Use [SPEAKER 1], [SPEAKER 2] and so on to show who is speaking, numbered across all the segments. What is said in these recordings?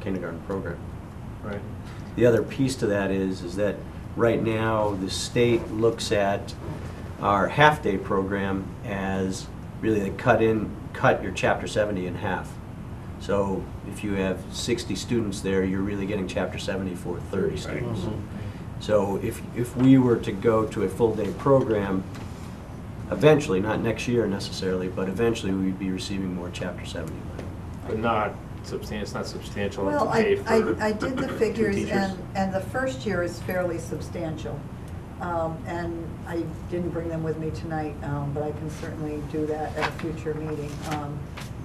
[SPEAKER 1] kindergarten program.
[SPEAKER 2] Right.
[SPEAKER 1] The other piece to that is, is that right now, the state looks at our half-day program as really they cut in, cut your chapter seventy in half. So if you have sixty students there, you're really getting chapter seventy for thirty students. So if, if we were to go to a full-day program, eventually, not next year necessarily, but eventually, we'd be receiving more chapter seventy money.
[SPEAKER 2] But not substantial, it's not substantial enough
[SPEAKER 3] Well,
[SPEAKER 2] to pay
[SPEAKER 3] I,
[SPEAKER 2] for.
[SPEAKER 3] I, I did the
[SPEAKER 2] two
[SPEAKER 3] figures
[SPEAKER 2] teachers.
[SPEAKER 3] and, and the first year is fairly substantial. Um, and I didn't bring them with me tonight, um, but I can certainly do that at a future meeting. Um,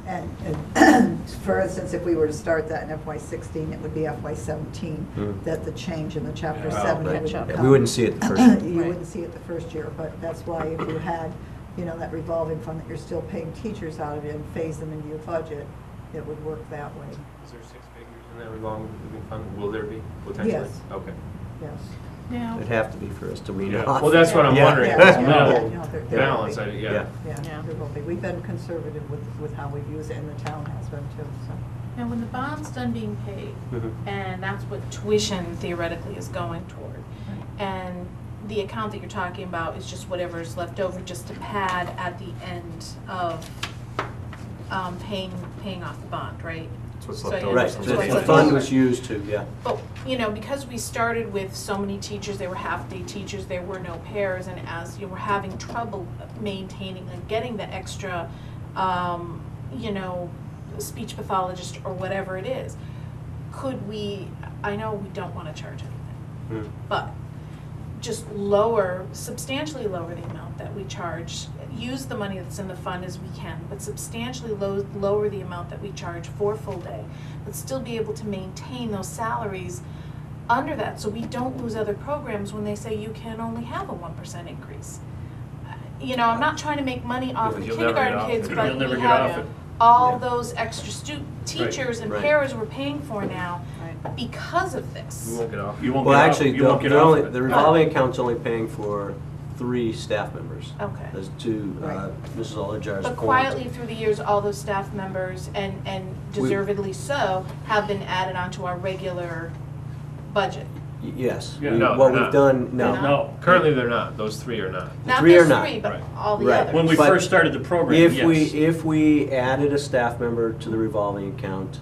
[SPEAKER 3] and, and for instance, if we were to start that in FY sixteen, it would be FY seventeen
[SPEAKER 1] Hmm.
[SPEAKER 3] that the change in the chapter
[SPEAKER 2] Yeah.
[SPEAKER 3] seventy
[SPEAKER 1] Right.
[SPEAKER 3] would
[SPEAKER 4] Catch
[SPEAKER 3] come.
[SPEAKER 4] up.
[SPEAKER 1] We wouldn't see it the first year.
[SPEAKER 3] You
[SPEAKER 4] Right.
[SPEAKER 3] wouldn't see it the first year, but that's why if you had, you know, that revolving fund that you're still paying teachers out of and phase them into your budget, it would work that way,
[SPEAKER 2] Is there six figures in that revolving fund? Will there be potentially?
[SPEAKER 3] Yes.
[SPEAKER 2] Okay.
[SPEAKER 3] yes.
[SPEAKER 4] Now,
[SPEAKER 1] It'd have to be for us to wean
[SPEAKER 2] Yeah.
[SPEAKER 1] it off.
[SPEAKER 2] Well, that's what I'm
[SPEAKER 1] Yeah.
[SPEAKER 2] wondering.
[SPEAKER 3] Yeah.
[SPEAKER 2] That's
[SPEAKER 3] Yeah.
[SPEAKER 2] minimal
[SPEAKER 3] Yeah, no, there- there
[SPEAKER 2] balance, I,
[SPEAKER 3] won't be.
[SPEAKER 2] yeah.
[SPEAKER 3] Yeah,
[SPEAKER 4] Yeah.
[SPEAKER 3] there will be. We've been conservative with, with how we've used it, and the town has been too, so.
[SPEAKER 4] now when the bond's done being paid,
[SPEAKER 2] Mhm.
[SPEAKER 4] and that's what tuition theoretically is going toward, and the account that you're talking about is just whatever's left over just to pad at the end of um, paying, paying off the bond, right?
[SPEAKER 2] That's what's
[SPEAKER 4] So
[SPEAKER 2] left
[SPEAKER 4] yeah,
[SPEAKER 2] over.
[SPEAKER 1] Right,
[SPEAKER 4] that's
[SPEAKER 2] from
[SPEAKER 4] what's
[SPEAKER 1] the
[SPEAKER 4] left
[SPEAKER 1] the
[SPEAKER 4] over.
[SPEAKER 1] fund was used to, yeah.
[SPEAKER 4] But, you know, because we started with so many teachers, they were half-day teachers, there were no pairs, and as you were having trouble maintaining and getting the extra, um, you know, speech pathologist or whatever it is, could we, I know we don't wanna charge anything,
[SPEAKER 2] Hmm.
[SPEAKER 4] but just lower, substantially lower the amount that we charge, use the money that's in the fund as we can, but substantially low, lower the amount that we charge for full day, but still be able to maintain those salaries under that, so we don't lose other programs when they say you can only have a one percent increase. Uh, You know, I'm not trying to make money off the
[SPEAKER 2] Because you'll never get
[SPEAKER 4] kindergarten
[SPEAKER 2] off
[SPEAKER 4] kids,
[SPEAKER 2] it.
[SPEAKER 4] but
[SPEAKER 2] You'll never
[SPEAKER 4] we
[SPEAKER 2] get off
[SPEAKER 4] have
[SPEAKER 2] it.
[SPEAKER 1] Yeah.
[SPEAKER 4] all those extra stu- teachers and
[SPEAKER 1] Right.
[SPEAKER 4] pairs we're paying for now because of this.
[SPEAKER 2] You won't get off, you won't
[SPEAKER 1] Well,
[SPEAKER 2] get off,
[SPEAKER 1] actually,
[SPEAKER 2] you
[SPEAKER 1] the
[SPEAKER 2] won't get
[SPEAKER 1] the
[SPEAKER 2] off
[SPEAKER 1] only,
[SPEAKER 2] of
[SPEAKER 1] the
[SPEAKER 2] it.
[SPEAKER 1] revolving account's only paying for three staff members.
[SPEAKER 4] Okay.
[SPEAKER 1] There's two, uh,
[SPEAKER 3] Right.
[SPEAKER 1] Mrs. Olajar's
[SPEAKER 4] But
[SPEAKER 1] point.
[SPEAKER 4] quietly through the years, all those staff members, and, and
[SPEAKER 1] We-
[SPEAKER 4] deservedly so, have been added onto our regular budget.
[SPEAKER 1] Y- Yes.
[SPEAKER 2] Yeah,
[SPEAKER 1] We-
[SPEAKER 2] no,
[SPEAKER 1] What
[SPEAKER 2] they're
[SPEAKER 1] we've
[SPEAKER 2] not.
[SPEAKER 1] done,
[SPEAKER 4] They're
[SPEAKER 1] no.
[SPEAKER 4] not.
[SPEAKER 2] No, currently they're not, those three are not.
[SPEAKER 4] Not
[SPEAKER 1] three are
[SPEAKER 4] those
[SPEAKER 1] not.
[SPEAKER 4] three, but
[SPEAKER 2] Right.
[SPEAKER 4] all the
[SPEAKER 1] Right.
[SPEAKER 4] others.
[SPEAKER 5] When we
[SPEAKER 1] But
[SPEAKER 5] first started the program, yes.
[SPEAKER 1] If we, if we added a staff member to the revolving account,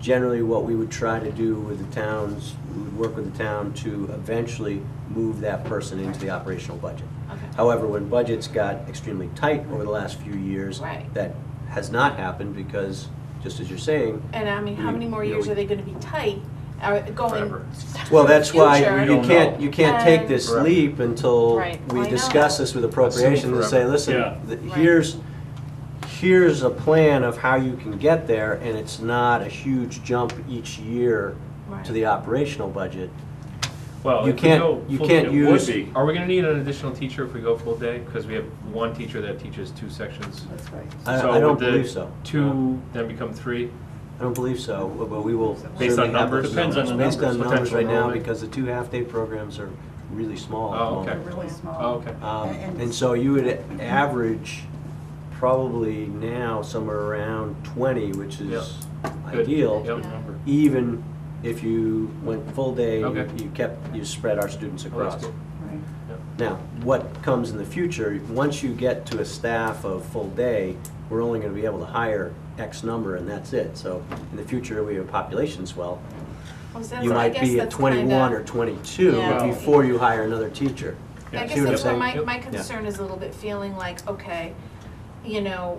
[SPEAKER 1] generally what we would try to do with the towns, we would work with the town to eventually move that person into the operational budget.
[SPEAKER 4] Okay.
[SPEAKER 1] However, when budgets got extremely tight over the last few years,
[SPEAKER 4] Right.
[SPEAKER 1] that has not happened because, just as you're saying,
[SPEAKER 4] And I mean, how many more years are they gonna be tight, are going
[SPEAKER 2] Forever.
[SPEAKER 1] well, that's why
[SPEAKER 4] future?
[SPEAKER 1] you
[SPEAKER 5] don't
[SPEAKER 1] can't,
[SPEAKER 5] know.
[SPEAKER 1] you can't take
[SPEAKER 4] And-
[SPEAKER 1] this
[SPEAKER 2] Right.
[SPEAKER 1] leap until
[SPEAKER 4] Right. I
[SPEAKER 1] we
[SPEAKER 4] know.
[SPEAKER 1] discuss this with appropriations and say,
[SPEAKER 2] forever.
[SPEAKER 5] Yeah.
[SPEAKER 1] listen, th-
[SPEAKER 4] Right.
[SPEAKER 1] here's, here's a plan of how you can get there, and it's not a huge jump each year
[SPEAKER 4] Right.
[SPEAKER 1] to the operational budget.
[SPEAKER 2] Well,
[SPEAKER 1] You
[SPEAKER 2] if we
[SPEAKER 1] can't-
[SPEAKER 2] go
[SPEAKER 1] you
[SPEAKER 2] full-
[SPEAKER 1] can't
[SPEAKER 2] it
[SPEAKER 1] use-
[SPEAKER 2] would be. Are we gonna need an additional teacher if we go full day? Because we have one teacher that teaches two sections.
[SPEAKER 3] That's right.
[SPEAKER 1] I-
[SPEAKER 2] So
[SPEAKER 1] I don't
[SPEAKER 2] would the
[SPEAKER 1] believe so.
[SPEAKER 2] Two then become three?
[SPEAKER 1] I don't believe so, but but we will certainly
[SPEAKER 2] Based on
[SPEAKER 1] have those
[SPEAKER 2] numbers?
[SPEAKER 5] Depends on the
[SPEAKER 1] Based on
[SPEAKER 5] numbers,
[SPEAKER 1] numbers
[SPEAKER 2] potential
[SPEAKER 1] right now,
[SPEAKER 2] enrollment.
[SPEAKER 1] because the two half-day programs are really small at the
[SPEAKER 2] Oh,
[SPEAKER 1] moment.
[SPEAKER 2] okay.
[SPEAKER 3] They're really
[SPEAKER 2] Oh,
[SPEAKER 3] small.
[SPEAKER 2] okay.
[SPEAKER 1] Um,
[SPEAKER 3] And-
[SPEAKER 1] And so you would average probably now somewhere around 20, which is
[SPEAKER 2] Good.
[SPEAKER 1] ideal,
[SPEAKER 2] Yep.
[SPEAKER 4] Yeah.
[SPEAKER 1] even if you went full day, you
[SPEAKER 2] Okay.
[SPEAKER 1] you kept, you spread our students
[SPEAKER 2] Well, that's
[SPEAKER 1] across.
[SPEAKER 2] good.
[SPEAKER 3] Right.
[SPEAKER 1] Now, what comes in the future, once you get to a staff of full day, we're only going to be able to hire X number and that's it. So in the future, we have a population swell.
[SPEAKER 4] Well, so
[SPEAKER 1] You
[SPEAKER 4] that's- I
[SPEAKER 1] might
[SPEAKER 4] guess
[SPEAKER 1] be at
[SPEAKER 4] that's
[SPEAKER 1] 21
[SPEAKER 4] kinda-
[SPEAKER 1] or 22
[SPEAKER 4] Yeah.
[SPEAKER 1] before you hire another teacher.
[SPEAKER 4] I
[SPEAKER 2] Yeah.
[SPEAKER 1] See
[SPEAKER 4] guess
[SPEAKER 1] what I'm
[SPEAKER 4] that's where
[SPEAKER 1] saying?
[SPEAKER 4] my,
[SPEAKER 2] Yep.
[SPEAKER 4] my concern is a little bit feeling like, okay, you know,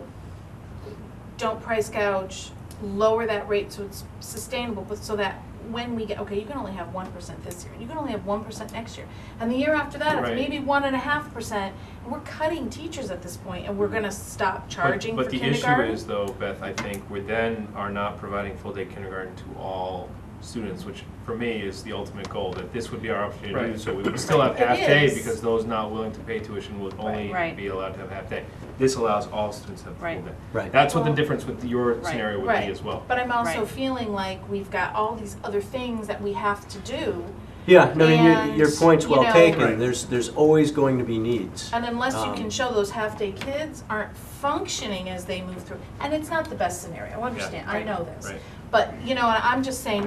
[SPEAKER 4] don't price gouge, lower that rate so it's sustainable, but so that when we get, okay, you can only have one percent this year, and you can only have one percent next year. And the year after that,
[SPEAKER 2] Right.
[SPEAKER 4] it's maybe one and a half percent, and we're cutting teachers at this point, and we're gonna stop charging for
[SPEAKER 2] Mm-hmm. But-
[SPEAKER 4] kindergarten.
[SPEAKER 2] But the issue is though, Beth, I think we then are not providing full-day kindergarten to all students, which for me is the ultimate goal, that this would be our opportunity to do.
[SPEAKER 5] Right.
[SPEAKER 2] So we would still have
[SPEAKER 4] It
[SPEAKER 2] half-day
[SPEAKER 4] is.
[SPEAKER 2] because those not willing to pay tuition would only
[SPEAKER 6] Right.
[SPEAKER 2] be allowed to have half-day. This allows all students to have full-day.
[SPEAKER 6] Right.
[SPEAKER 1] Right.
[SPEAKER 2] That's what the
[SPEAKER 4] Well-
[SPEAKER 2] difference with your
[SPEAKER 6] Right.
[SPEAKER 2] scenario would
[SPEAKER 4] Right.
[SPEAKER 2] be as well.
[SPEAKER 4] But I'm also
[SPEAKER 6] Right.
[SPEAKER 4] feeling like we've got all these other things that we have to do,
[SPEAKER 1] Yeah, no, I mean, your, your
[SPEAKER 4] And,
[SPEAKER 1] point's
[SPEAKER 4] you
[SPEAKER 1] well
[SPEAKER 4] know-
[SPEAKER 1] taken.
[SPEAKER 5] Right.
[SPEAKER 1] There's, there's always going to be needs.
[SPEAKER 4] And unless you
[SPEAKER 1] Um,
[SPEAKER 4] can show those half-day kids aren't functioning as they move through, and it's not the best scenario, I understand, I
[SPEAKER 6] right,
[SPEAKER 4] know this.
[SPEAKER 2] right.
[SPEAKER 4] But, you know, and I'm just saying,